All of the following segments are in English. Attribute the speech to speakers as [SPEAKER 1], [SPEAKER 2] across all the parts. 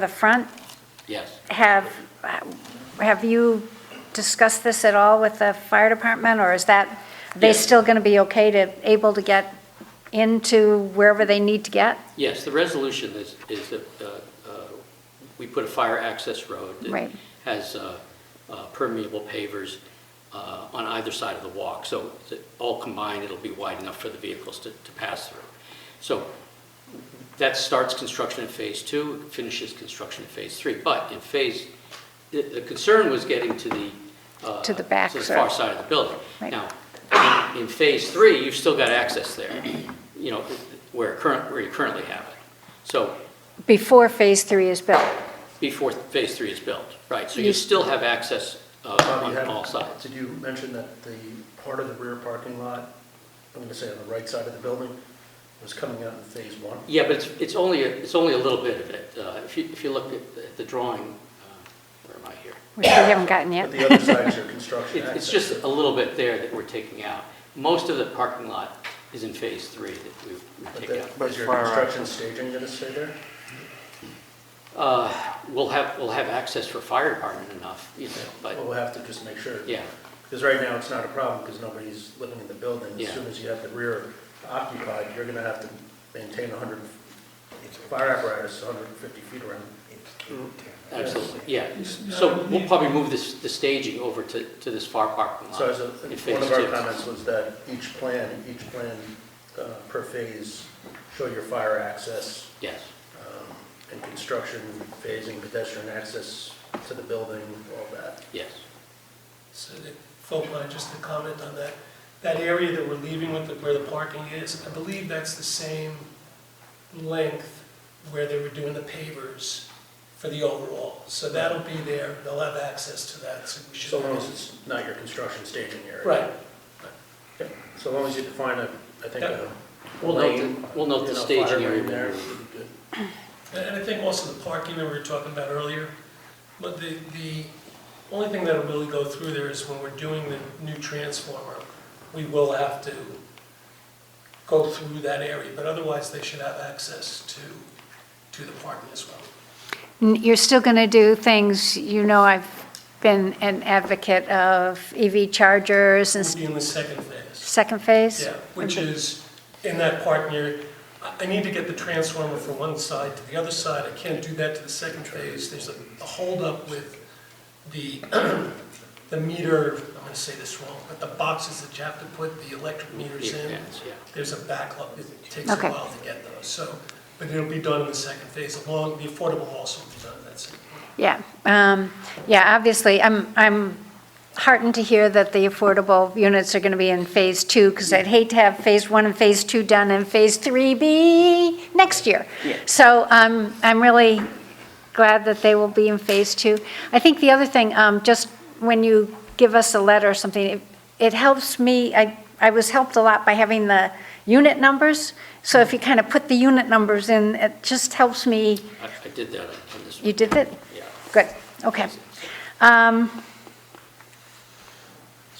[SPEAKER 1] the front.
[SPEAKER 2] Yes.
[SPEAKER 1] Have, have you discussed this at all with the fire department, or is that, are they
[SPEAKER 2] Yes.
[SPEAKER 1] still going to be okay to, able to get into wherever they need to get?
[SPEAKER 2] Yes, the resolution is, is that uh, uh, we put a fire access road that
[SPEAKER 1] Right.
[SPEAKER 2] has uh, uh, permeable pavers uh, on either side of the walk, so that all combined, it'll be wide enough for the vehicles to, to pass through. So that starts construction in Phase Two, finishes construction in Phase Three, but in Phase, the, the concern was getting to the. uh,
[SPEAKER 1] To the back,
[SPEAKER 2] To the
[SPEAKER 1] sir.
[SPEAKER 2] far side of the building.
[SPEAKER 1] Right.
[SPEAKER 2] Now, in phase three, you've still got access there, you know, where current, where you currently have it. So
[SPEAKER 1] Before Phase 3 is built?
[SPEAKER 2] before phase three is built, right? So you
[SPEAKER 1] You-
[SPEAKER 2] still have access uh,
[SPEAKER 3] Bob, you
[SPEAKER 2] on
[SPEAKER 3] had-
[SPEAKER 2] all sides.
[SPEAKER 3] Did you mention that the part of the rear parking lot, I'm gonna say on the right side of the building, was coming out in phase one?
[SPEAKER 2] Yeah, but it's, it's only, it's only a little bit of it. Uh, If you, if you look at the- at the drawing, uh, where am I here?
[SPEAKER 1] Which we haven't gotten
[SPEAKER 3] But
[SPEAKER 1] yet.
[SPEAKER 3] the other side's your construction
[SPEAKER 2] It-
[SPEAKER 3] access.
[SPEAKER 2] It's just a little bit there that we're taking out. Most of the parking lot is in phase three that we've we've
[SPEAKER 3] But
[SPEAKER 2] taken out.
[SPEAKER 3] the- Is your
[SPEAKER 4] Fire
[SPEAKER 3] construction staging gonna stay there?
[SPEAKER 2] Uh, We'll have, we'll have access for fire department enough, you know, but,
[SPEAKER 3] Well, we'll have to just make sure.
[SPEAKER 2] yeah.
[SPEAKER 3] Because right now, it's not a problem, because nobody's living in the building.
[SPEAKER 2] Yeah.
[SPEAKER 3] As soon as you have the rear occupied, you're gonna have to maintain 100, fire apparatus 150 feet around.
[SPEAKER 2] Absolutely, yeah. So we'll probably move this, the staging over to, to this far parking lot.
[SPEAKER 3] So as a,
[SPEAKER 2] in
[SPEAKER 3] one
[SPEAKER 2] phase
[SPEAKER 3] of our
[SPEAKER 2] two.
[SPEAKER 3] comments was that each plan, each plan uh, per phase show your fire access
[SPEAKER 2] Yes,
[SPEAKER 3] um, and construction, phasing, pedestrian access to the building, all that.
[SPEAKER 2] yes.
[SPEAKER 5] So the folk line, just to comment on that, that area that we're leaving with, the- where the parking is, I believe that's the same length where they were doing the pavers for the overall. So that'll be there, they'll have access to that, so we should.
[SPEAKER 3] So long as it's not your construction staging area.
[SPEAKER 5] Right,
[SPEAKER 3] Yeah, So long as you define a, I think, a
[SPEAKER 2] We'll note the-
[SPEAKER 3] lane,
[SPEAKER 2] we'll note the
[SPEAKER 3] you know,
[SPEAKER 2] staging
[SPEAKER 3] fire lane
[SPEAKER 2] area.
[SPEAKER 3] there, should be good.
[SPEAKER 5] and and I think also the parking that we were talking about earlier, but the, the only thing that'll really go through there is when we're doing the new transformer, we will have to go through that area, but otherwise they should have access to, to the parking as well.
[SPEAKER 1] N- You're still going to do things, you know, I've been an advocate of EV chargers and
[SPEAKER 5] We'll
[SPEAKER 1] s-
[SPEAKER 5] be in the second phase.
[SPEAKER 1] second phase?
[SPEAKER 5] Mm-hmm. Yeah, which is in that parking area. I I need to get the transformer from one side to the other side. I can't do that to the second phase. There's a a holdup with the, the meter, I'm gonna say this wrong, but the boxes that you have to put the electric meters in.
[SPEAKER 2] Yes, yeah.
[SPEAKER 5] There's a backlog. It takes a
[SPEAKER 1] Okay.
[SPEAKER 5] while to get those, so, but it'll be done in the second phase along, the affordable also will be done, that's it.
[SPEAKER 1] Yeah, um, yeah, obviously, I'm, I'm heartened to hear that the affordable units are going to be in Phase 2, because I'd hate to have Phase 1 and Phase 2 done and Phase 3 be next year. So um, I'm really glad that they will be in Phase 2. I think the other thing, um, just when you give us a letter or something, it- it helps me, I, I was helped a lot by having the unit numbers, so if you kind of put the unit numbers in, it just helps me,
[SPEAKER 2] I, I did that on this
[SPEAKER 1] you
[SPEAKER 2] one,
[SPEAKER 1] did it?
[SPEAKER 2] yeah.
[SPEAKER 1] Good, okay. Um,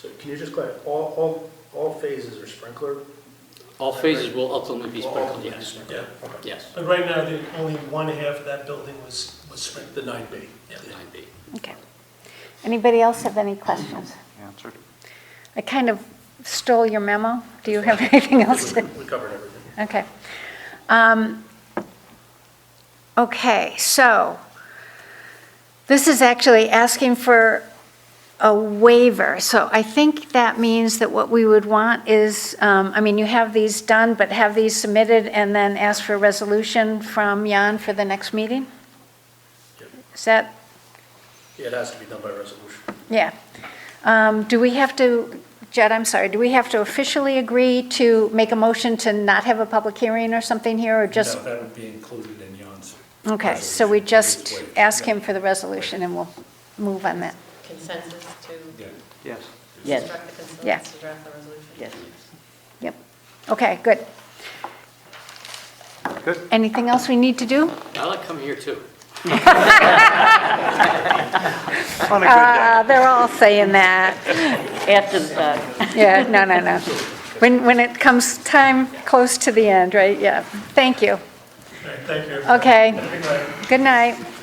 [SPEAKER 3] So can you just clarify, all, all, all phases are sprinkler?
[SPEAKER 2] All phases will ultimately be
[SPEAKER 3] All
[SPEAKER 2] sprinkled,
[SPEAKER 3] phases
[SPEAKER 2] yes,
[SPEAKER 3] sprinkler.
[SPEAKER 5] Yeah,
[SPEAKER 3] Okay.
[SPEAKER 2] yes,
[SPEAKER 5] but right now, the, only one half of that building was, was sprinkled.
[SPEAKER 3] The nine B.
[SPEAKER 5] Yeah.
[SPEAKER 2] nine B.
[SPEAKER 1] Okay. Anybody else have any questions?
[SPEAKER 4] Answered.
[SPEAKER 1] I kind of stole your memo. Do you have anything else? to-
[SPEAKER 3] We covered everything.
[SPEAKER 1] Okay. Um, Okay, so this is actually asking for a waiver. So I think that means that what we would want is, um, I mean, you have these done, but have these submitted and then ask for a resolution from Jan for the next meeting?
[SPEAKER 3] Yep.
[SPEAKER 1] Is that
[SPEAKER 3] Yeah, it has to be done by resolution.
[SPEAKER 1] Yeah. Um, Do we have to, Jed, I'm sorry, do we have to officially agree to make a motion to not have a public hearing or something here, or just?
[SPEAKER 6] No, That would be included in Jan's.
[SPEAKER 1] Okay, so we just
[SPEAKER 6] resolution.
[SPEAKER 1] ask him for the resolution, and we'll move on that.
[SPEAKER 7] consensus to
[SPEAKER 6] Yeah.
[SPEAKER 4] Yes.
[SPEAKER 8] Yes,
[SPEAKER 7] instruct the
[SPEAKER 1] Yeah.
[SPEAKER 7] consultants to draft the resolution?
[SPEAKER 8] yes.
[SPEAKER 1] Yep. Okay, good.
[SPEAKER 4] Good.
[SPEAKER 1] Anything else we need to do?
[SPEAKER 2] I like coming here too.
[SPEAKER 4] On a
[SPEAKER 1] Uh, They're all saying that.
[SPEAKER 8] After the fact.
[SPEAKER 1] Yeah, no, no, no. When, when it comes time close to the end, right? Yeah. Thank you.
[SPEAKER 5] All right, thank you. everybody.
[SPEAKER 1] Okay,
[SPEAKER 5] Have a good night.
[SPEAKER 1] good night.